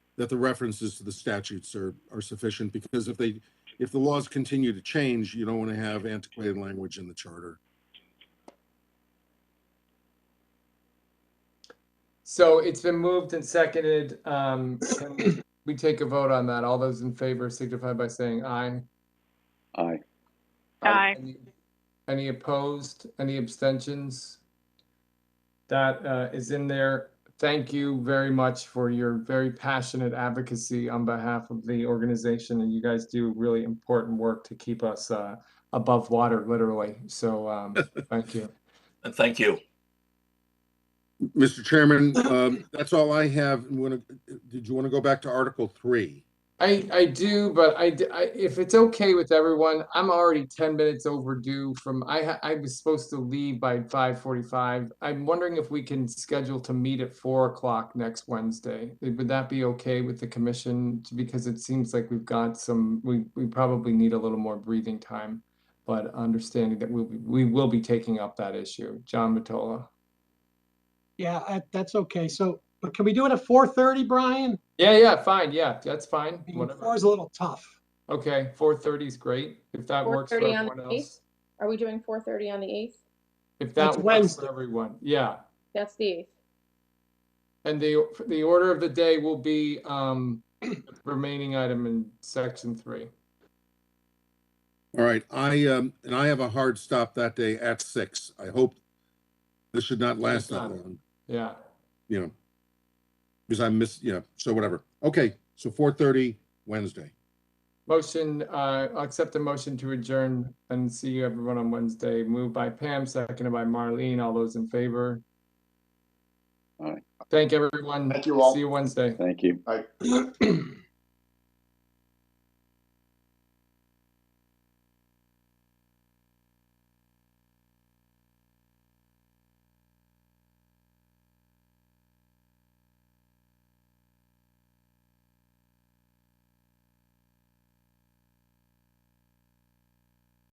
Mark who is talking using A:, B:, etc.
A: that the references to the statutes are, are sufficient, because if they, if the laws continue to change, you don't want to have antiquated language in the charter.
B: So it's been moved and seconded. Um, can we take a vote on that. All those in favor signify by saying aye.
C: Aye.
D: Aye.
B: Any- Any opposed? Any abstentions? That uh, is in there. Thank you very much for your very passionate advocacy on behalf of the organization, and you guys do really important work to keep us uh, above water, literally. So um, thank you.
E: And thank you.
A: Mr. Chairman, um, that's all I have. Want to, did you want to go back to Article Three?
B: I, I do, but I, d- I- if it's okay with everyone, I'm already ten minutes overdue from, I, ha- I was supposed to leave by five forty-five. I'm wondering if we can schedule to meet at four o'clock next Wednesday. Would that be okay with the commission? Because it seems like we've got some, we, we probably need a little more breathing time. But understanding that we'll, be- we will be taking up that issue. John Matola.
F: Yeah, I- that's okay. So, but can we do it at four thirty, Brian?
B: Yeah, yeah, fine, yeah, that's fine,
F: I mean, Four
B: whatever.
F: is a little tough.
B: Okay, four thirty is great, if that
G: Four
B: works for
G: thirty on
B: everyone
G: the
B: else.
G: eighth? Are we doing four thirty on the eighth?
B: If
F: That's
B: that works
F: Wednesday.
B: for everyone, yeah.
G: That's the eighth.
B: And the, the order of the day will be, um, the remaining item in section three.
A: All right, I, um, and I have a hard stop that day at six. I hope this should not last that long,
B: Yeah,
A: you know. Because I miss, yeah, so whatever. Okay, so four thirty Wednesday.
B: motion, uh, I'll accept the motion to adjourn and see you everyone on Wednesday. Moved by Pam, seconded by Marlene. All those in favor?
C: Aye.
B: Thank everyone.
H: Thank you all.
B: See you Wednesday.
C: Thank you.
H: Aye.